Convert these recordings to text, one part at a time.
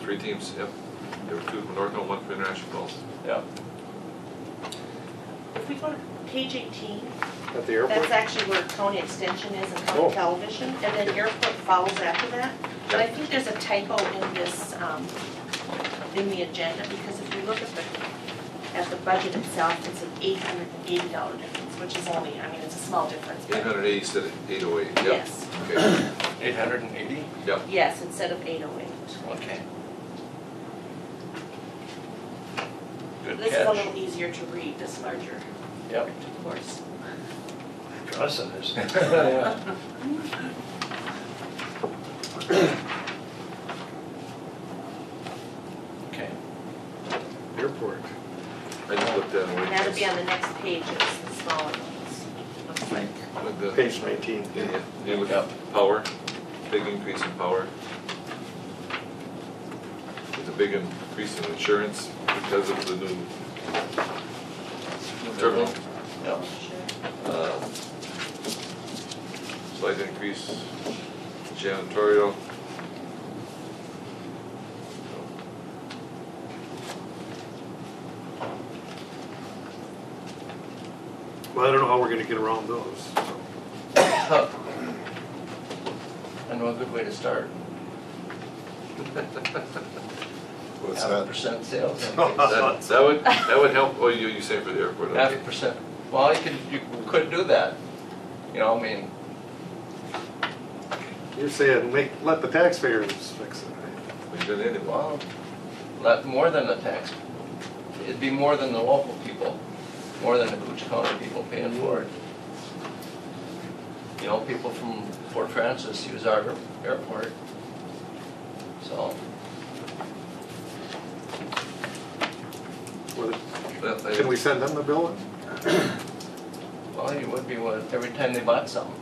Three teams, yep. There were two from Norco and one from International Falls. Yeah. If we go to page eighteen, At the that's airport? actually where County Extension is and Oh. County Television, and then Airport follows after that. But I think there's a typo in this, um, in the agenda, because if you look at the, at the budget itself, it's an eight hundred and eighty dollar difference, which is only, I mean, it's a small difference, Eight but hundred eighty instead of eight oh eight, yep. yes, Okay, Eight hundred and eighty? yep. yes, instead of eight oh eight. Okay. Good This is a little catch. easier to read, this larger, Yep. of course. Trust us. Okay. Airport. I just looked at And that'll be it. on the next page, it's the smaller ones, looks like. With the- Page nineteen. Yeah, yeah. You look at power, big increase in power. There's a big increase in insurance because of the new terminal. Yep. Sure. Um, Slight increase janitorial. Well, I don't know how we're gonna get around those. so. I know a good way to start. What's Half a that? percent sales. That that would, that would help, oh, you, you saying for the airport, Half a okay. percent. Well, you could, you could do that. You know, I mean, You're saying, make, let the taxpayers fix it, right? We've been in it, well, Well, not more than the tax, it'd be more than the local people, more than the Cooch County people paying for it. You know, people from Fort Francis use our airport, so, Or that- the- Can we that- send them the bill? well, it would be what, every time they bought something.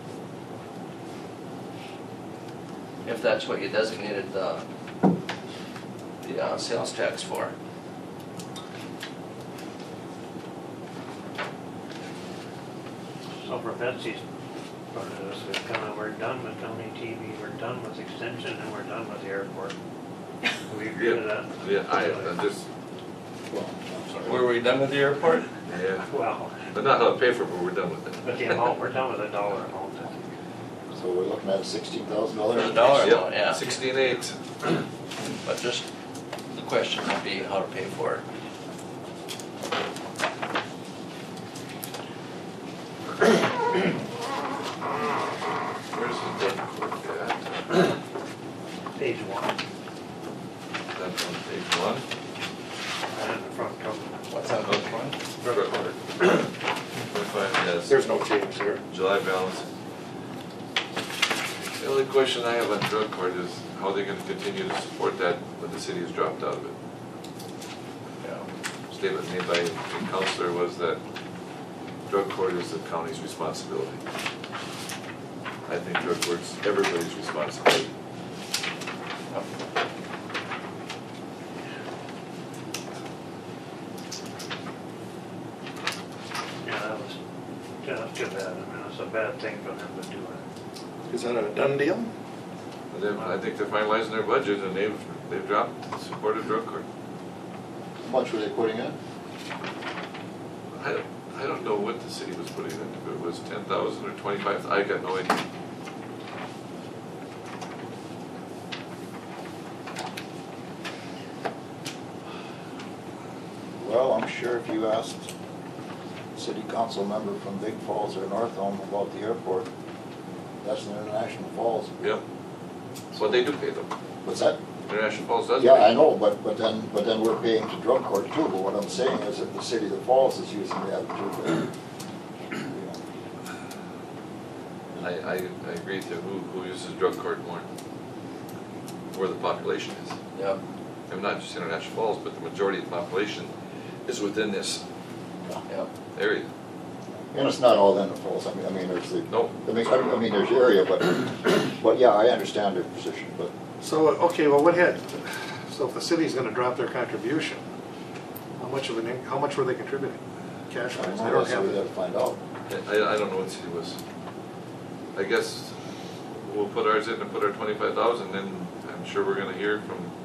If that's what you designated the, the uh, sales tax for. So for Betsy's part of this, we've kind of, we're done with county TV, we're done with extension, and we're done with the airport. Do we agree to that? yeah, I, I just, Were we done with the airport? yeah, Well, but not how to pay for it, but we're done with it. but the amount, we're done with the dollar amount. So we're looking at sixteen thousand The dollars? dollar Yep, amount, yeah. Sixteen eight, But just, the question would be how to pay for it. where's the, yeah, Page one, that's on page one. and the front cover. What's that Okay. one? Twenty-five, yes. There's no change there. July balance. The only question I have on drug court is how they're gonna continue to support that when the city has dropped out of it. Yeah. Statement made by the counselor was that drug court is the county's responsibility. I think drug court's everybody's responsibility. Yeah, that was, yeah, that's too bad, I mean, it's a bad thing for them to do it. Is that a done deal? And then I think they're finalizing their budget and they've, they've dropped, supported drug court. How much were they putting in? I don't, I don't know what the city was putting in, if it was ten thousand or twenty-five, I got no idea. Well, I'm sure if you asked city council member from Big Falls or North Elm about the airport, that's an international falls. Yep. But they do pay them. What's that? International Falls does pay. Yeah, I know, but, but then, but then we're paying to drug court too, but what I'm saying is that the city that falls is using that too. but, you know. I, I, I agree with you, who, who uses drug court more? Where the population is. Yep. And not just International Falls, but the majority of the population is within this Yep. area. And it's not all in the falls, I mean, I mean, there's the, No, I mean, I mean, there's the area, but, but yeah, I understand their position, but So, okay, well, what had, so if the city's gonna drop their contribution, how much of an, in- how much were they contributing? Cash I wise, don't they know, don't that's what have we gotta it. find out. I, I don't know what city was. I guess we'll put ours in and put our twenty-five thousand, then I'm sure we're gonna hear from